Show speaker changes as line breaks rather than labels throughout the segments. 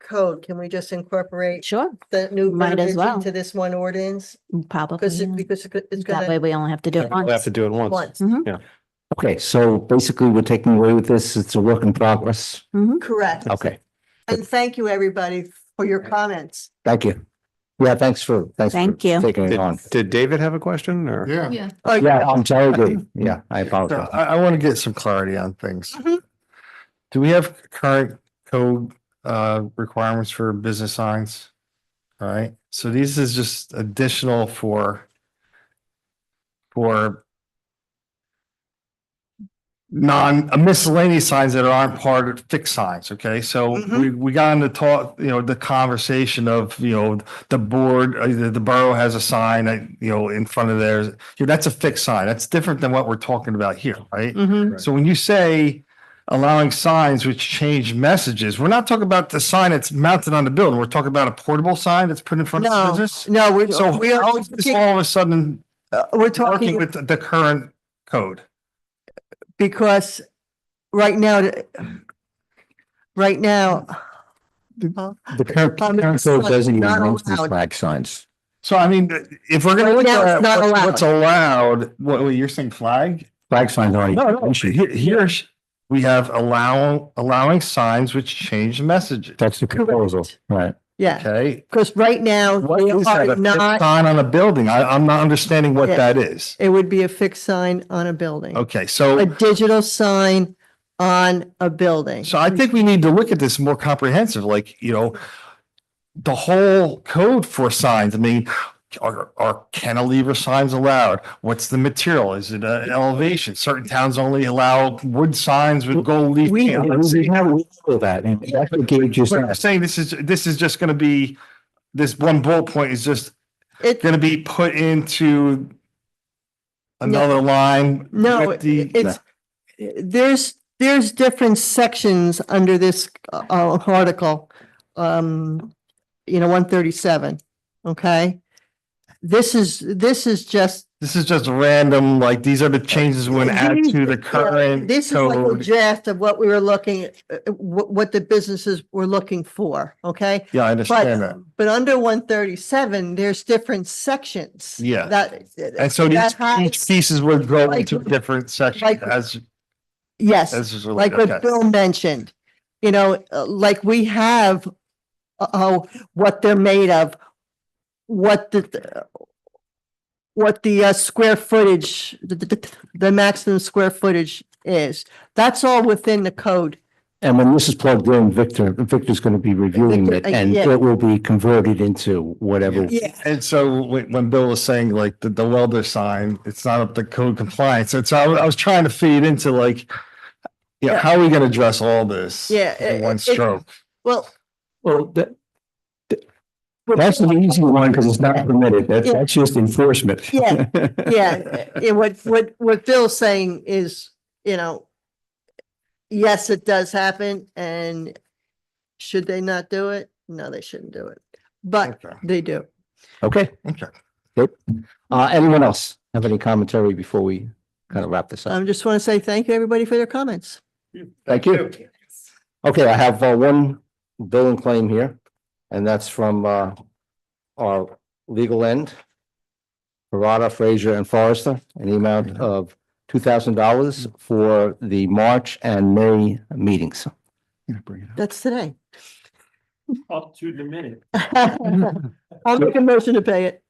code, can we just incorporate
Sure,
the new
Might as
verbiage
well.
into this one ordinance?
probably.
Because,
yeah.
it- because it- it's
That way
gonna,
we only have to do it
We'll have
once.
to do it once.
once,
Okay, so basically we're taking away with this. It's a work in progress.
correct.
Okay,
And thank you, everybody, for your comments.
thank you. Yeah, thanks for, thanks. for
Thank you.
Taking it
Did,
on.
did David have a question or?
Yeah.
Yeah.
Yeah, I'm sorry, Dave. Yeah, I
So
apologize.
I, I want to get some clarity on things.
Mhm.
Do we have current code, uh, requirements for business signs? All right, so these is just additional for, for non uh, miscellaneous signs that aren't part of fixed signs, okay? So
Mhm.
we, we got into talk, you know, the conversation of, you know, the board, uh, the, the borough has a sign that, you know, in front of theirs. You know, that's a fixed sign. That's different than what we're talking about here, right?
Mm-hmm.
Mhm.
So when you say allowing signs which change messages, we're not talking about the sign that's mounted on the building. We're talking about a portable sign that's put in front of the
No,
business.
No, we're,
So
we're,
how is this all of a sudden
uh, we're
working
talking
with the- the current code?
because right now, the- right now,
The current,
Um,
current code doesn't even
not
mention
allowed.
flag signs.
So I mean, if we're gonna
Right
look
now,
at
it's not
what- what's allowed, what, what you're saying flag?
Flag signs aren't. even mentioned.
Here, here's, we have allow, allowing signs which change messages.
That's the proposal, right?
yeah,
Okay.
because right now,
What
they
is that?
are
A fixed
not,
sign on a building? I, I'm not understanding what
Yeah.
that is.
it would be a fixed sign on a building.
Okay,
A
so,
digital sign on a building.
so I think we need to look at this more comprehensive, like, you know, the whole code for signs. I mean, are, are cantilever signs allowed? What's the material? Is it an elevation? Certain towns only allow wood signs with gold leaf.
We,
candles.
we have, we know that, and that's what Gabe just
But I'm
asked.
saying this is, this is just gonna be, this one bullet point is just
It,
gonna be put into
No.
another line.
no,
with the-
it's, there's, there's different sections under this uh, article. Um, you know, one thirty-seven, okay? This is, this is just,
This is just random, like, these are the changes we're gonna add to the current
this is like a
code.
draft of what we were looking, what, what the businesses were looking for, okay?
Yeah, I understand
But,
that.
but under one thirty-seven, there's different sections.
Yeah.
That.
And so these,
that has-
each pieces would go
like-
into different sections
like-
as,
Yes.
as is
like
related.
what
Okay.
Bill mentioned, you know, uh, like we have uh, oh, what they're made of, what the what the uh, square footage, the, the, the maximum square footage is. That's all within the code.
And when this is plugged in, Victor, Victor's going to be reviewing it
Victor, uh,
and
yeah.
it will be converted into whatever.
Yeah.
And so when, when Bill was saying like the, the welder sign, it's not up to code compliance. And so I, wa- I was trying to feed into like, yeah,
Yeah.
how are we gonna address all this?
Yeah,
In
it-
one
it-
stroke.
Well,
Well, that, that- that's the easy one because it's not permitted. That,
Yeah.
that's just enforcement.
Yeah, yeah, uh, yeah, what, what, what Bill's saying is, you know, yes, it does happen and should they not do it? No, they shouldn't do it, but
Okay.
they do.
Okay.
Okay.
Good. Uh, anyone else have any commentary before we kind of wrap this up?
I just want to say thank you, everybody, for their comments.
Thank you. Okay, I have uh, one billing claim here, and that's from uh, our legal end. Parada, Frazier, and Forrester, an amount of two thousand dollars for the March and May meetings.
That's today.
up to the minute.
I'll make a motion to pay it.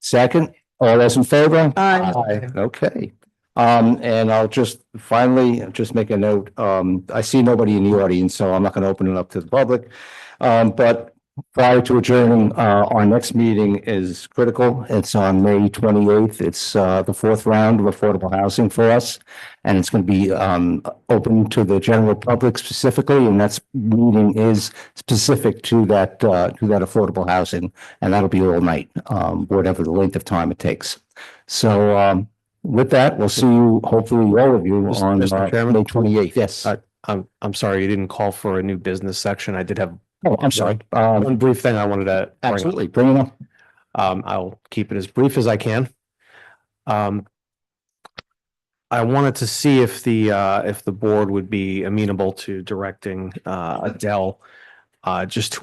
Second, all those in favor?
Aye.
Okay, um, and I'll just finally just make a note, um, I see nobody in the audience, so I'm not gonna open it up to the public. Um, but prior to adjourning, uh, our next meeting is critical. It's on May twenty-eighth. It's, uh, the fourth round of affordable housing for us. And it's gonna be, um, open to the general public specifically, and that's meeting is specific to that, uh, to that affordable housing. And that'll be all night, um, whatever the length of time it takes. So, um, with that, we'll see you, hopefully all of you
Mr.
on
Mr.
uh,
Chairman?
May twenty-eighth. Yes.
Uh, I'm, I'm sorry, you didn't call for a new business section. I did have
Oh, I'm sorry. Um,
one brief thing I wanted to. bring up.
absolutely. Bring it up.
Um, I'll keep it as brief as I can. Um, I wanted to see if the, uh, if the board would be amenable to directing, uh, Adele, uh, just to